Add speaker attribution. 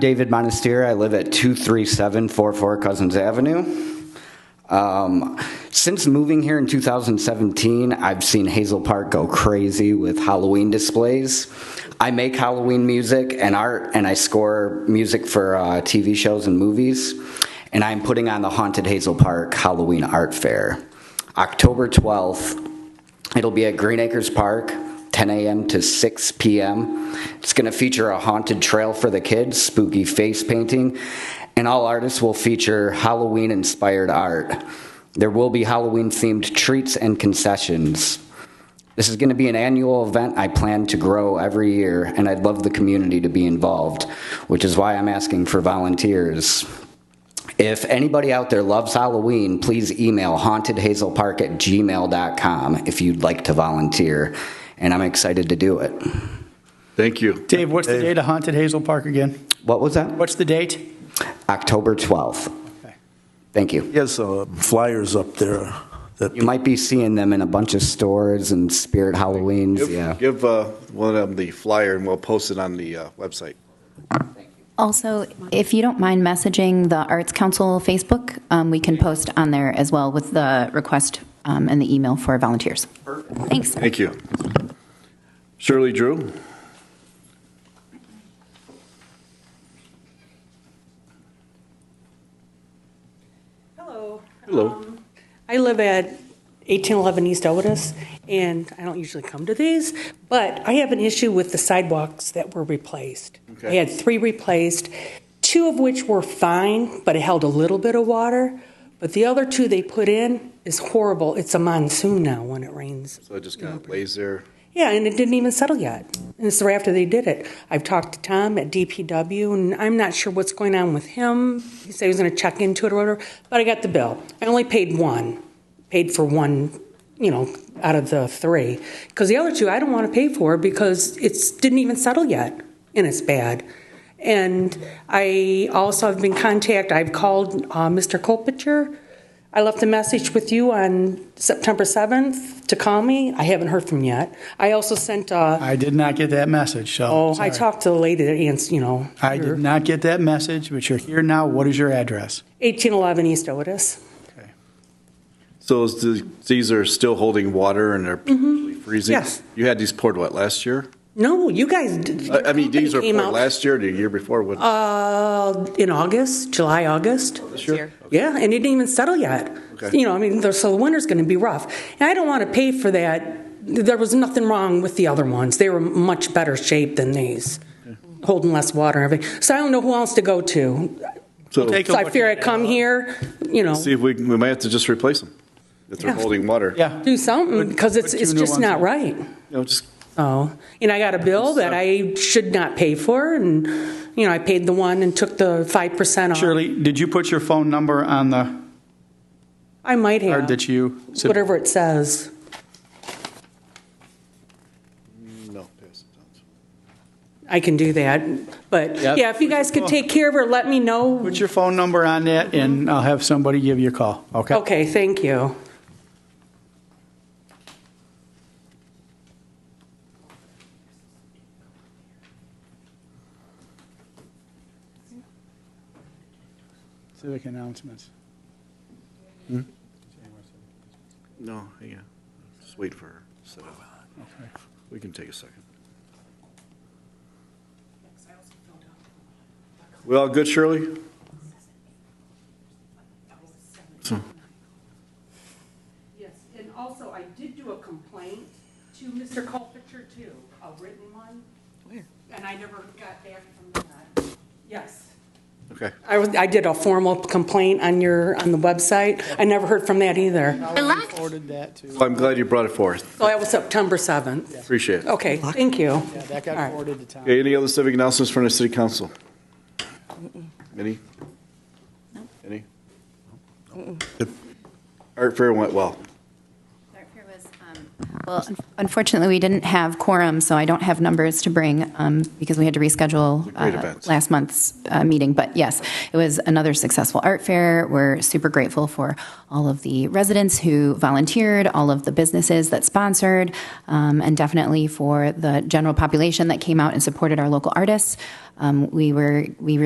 Speaker 1: David Monastir. I live at 23744 Cousins Avenue. Um, since moving here in 2017, I've seen Hazel Park go crazy with Halloween displays. I make Halloween music and art, and I score music for uh, TV shows and movies. And I'm putting on the Haunted Hazel Park Halloween Art Fair October 12th. It'll be at Green Acres Park, 10 a.m. to 6 p.m. It's going to feature a haunted trail for the kids, spooky face painting, and all artists will feature Halloween inspired art. There will be Halloween themed treats and concessions. This is going to be an annual event I plan to grow every year, and I'd love the community to be involved, which is why I'm asking for volunteers. If anybody out there loves Halloween, please email hauntedhazelpark at gmail.com if you'd like to volunteer. And I'm excited to do it.
Speaker 2: Thank you.
Speaker 3: Dave, what's the date of Haunted Hazel Park again?
Speaker 1: What was that?
Speaker 3: What's the date?
Speaker 1: October 12th.
Speaker 3: Okay.
Speaker 1: Thank you.
Speaker 4: He has uh, flyers up there that
Speaker 1: You might be seeing them in a bunch of stores and Spirit Halloweens.
Speaker 2: Give-
Speaker 1: yeah.
Speaker 2: Give uh, one of them the flyer, and we'll post it on the uh, website.
Speaker 5: Also, if you don't mind messaging the Arts Council Facebook, um, we can post on there as well with the request um, and the email for volunteers. Thanks.
Speaker 2: Thank you. Shirley Drew?
Speaker 6: Hello.
Speaker 2: Hello.
Speaker 6: Um, I live at 1811 East Otis, and I don't usually come to these, but I have an issue with the sidewalks that were replaced. I
Speaker 2: Okay.
Speaker 6: had three replaced, two of which were fine, but it held a little bit of water. But the other two they put in is horrible. It's a monsoon now when it rains.
Speaker 2: So it just kind of lays there.
Speaker 6: Yeah, and it didn't even settle yet. And it's right after they did it. I've talked to Tom at DPW, and I'm not sure what's going on with him. He said he was going to check into it or whatever, but I got the bill. I only paid one, paid for one, you know, out of the three, because the other two I don't want to pay for because it's didn't even settle yet, and it's bad. And I also have been contacted. I've called uh, Mr. Colpicher. I left a message with you on September 7th to call me. I haven't heard from yet. I also sent,
Speaker 2: Oh,
Speaker 6: uh,
Speaker 3: I did not get that message, so.
Speaker 6: oh, I
Speaker 3: sorry.
Speaker 6: talked to the lady that ans- you know,
Speaker 3: I did not get that message, but you're here now. What is your address?
Speaker 6: 1811 East Otis.
Speaker 2: So is the- these are still holding water and they're potentially freezing?
Speaker 6: Mm-hmm. Yes.
Speaker 2: You had these poured, what, last year?
Speaker 6: No, you guys did.
Speaker 2: I I mean, these are
Speaker 6: Came
Speaker 2: poured
Speaker 6: out,
Speaker 2: last year, or the year before, when
Speaker 6: Uh, in August, July,
Speaker 3: Oh,
Speaker 6: August.
Speaker 2: this year?
Speaker 6: Yeah, and it didn't even settle yet.
Speaker 2: Okay.
Speaker 6: You know, I mean, the- so the winter's going to be rough. And I don't want to pay for that. There was nothing wrong with the other ones. They were much better shape than these, holding less water and everything. So I don't know who else to go to.
Speaker 2: So
Speaker 3: Take a
Speaker 6: So I
Speaker 3: look
Speaker 6: fear I
Speaker 3: at it. uh,
Speaker 6: come here, you know,
Speaker 2: see if we, can- we might have to just replace them if they're
Speaker 6: Yeah.
Speaker 2: holding water.
Speaker 3: Yeah.
Speaker 6: do something because it's,
Speaker 3: put two
Speaker 6: it's
Speaker 3: new
Speaker 6: just
Speaker 3: ones
Speaker 6: not
Speaker 3: in.
Speaker 6: right.
Speaker 2: You know, just,
Speaker 6: Oh, and I got a bill that I should not pay for and, you know, I paid the one and took the 5% off.
Speaker 3: Shirley, did you put your phone number on the
Speaker 6: I might
Speaker 3: card
Speaker 6: have,
Speaker 3: that you? sub-
Speaker 6: whatever it says.
Speaker 2: no. pass it down.
Speaker 6: I can do that. But
Speaker 3: Yeah.
Speaker 6: yeah, if you guys could take care of her, let me know.
Speaker 3: Put your phone number on that, and I'll have somebody give you a call, okay?
Speaker 6: Okay, thank you.
Speaker 3: Civic announcements.
Speaker 2: No, hang on. Just wait for her. to set up. We can take a second. We all good, Shirley?
Speaker 6: Yes, and also I did do a complaint to Mr. Culpenter too, a written one. Where? And I never got back from that. Yes.
Speaker 2: Okay.
Speaker 6: I was, I did a formal complaint on your, on the website. I never heard from that either.
Speaker 3: Forwarded that to,
Speaker 2: Well, I'm glad you brought it forth.
Speaker 6: So that was September 7th.
Speaker 2: Appreciate it.
Speaker 6: Okay, thank you.
Speaker 3: yeah, that got
Speaker 6: All right.
Speaker 3: forwarded to Tom.
Speaker 2: Okay, any other civic announcements from the city council? Any? Any? Art fair went well.
Speaker 5: um, Well, un- unfortunately, we didn't have quorum, so I don't have numbers to bring um, because we had to reschedule
Speaker 2: Great
Speaker 5: uh,
Speaker 2: event.
Speaker 5: last month's uh, meeting. But yes, it was another successful art fair. We're super grateful for all of the residents who volunteered, all of the businesses that sponsored, um, and definitely for the general population that came out and supported our local artists. Um, We were, we